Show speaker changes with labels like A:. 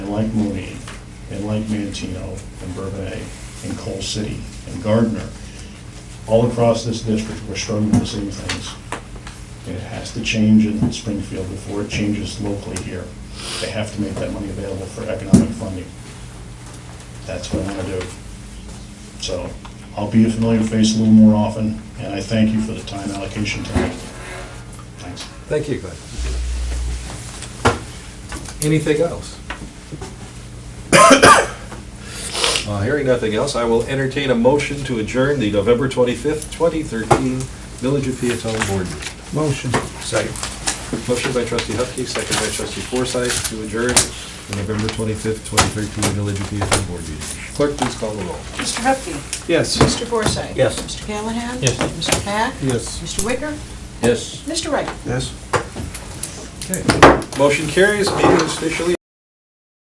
A: like Mooney, and like Mantino, and Bourbonnais, and Coal City, and Gardner, all across this district, we're struggling with the same things. And it has to change in Springfield before it changes locally here. They have to make that money available for economic funding. That's what I want to do. So I'll be a familiar face a little more often, and I thank you for the time allocation tonight. Thanks.
B: Thank you, Glenn. Anything else? Uh, Hearing nothing else, I will entertain a motion to adjourn the November 25th, 2013 Village of Peatone Board meeting.
C: Motion.
B: Second. Motion by trustee Hupkey, second by trustee Forsythe to adjourn the November 25th, 2013 Village of Peatone Board meeting. Clerk, please call the roll.
D: Mr. Hupkey.
B: Yes.
D: Mr. Forsythe.
C: Yes.
D: Mr. Callahan. Yes. Mr. Pack.
C: Yes.
D: Mr. Wicker.
B: Yes.
D: Mr. Wright.
C: Yes.
B: Motion carries, meeting is officially